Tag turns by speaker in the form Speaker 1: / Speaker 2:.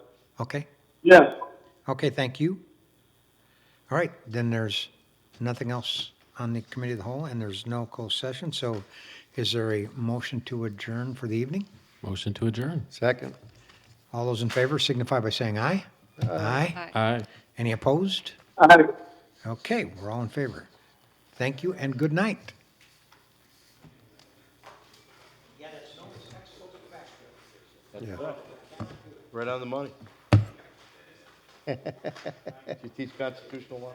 Speaker 1: Okay?
Speaker 2: Yes.
Speaker 1: Okay, thank you. All right, then there's nothing else on the committee of the whole, and there's no closed session, so is there a motion to adjourn for the evening?
Speaker 3: Motion to adjourn.
Speaker 4: Second.
Speaker 1: All those in favor signify by saying aye. Aye.
Speaker 3: Aye.
Speaker 1: Any opposed?
Speaker 2: Aye.
Speaker 1: Okay, we're all in favor. Thank you and good night.
Speaker 4: Right on the money. You teach constitutional law?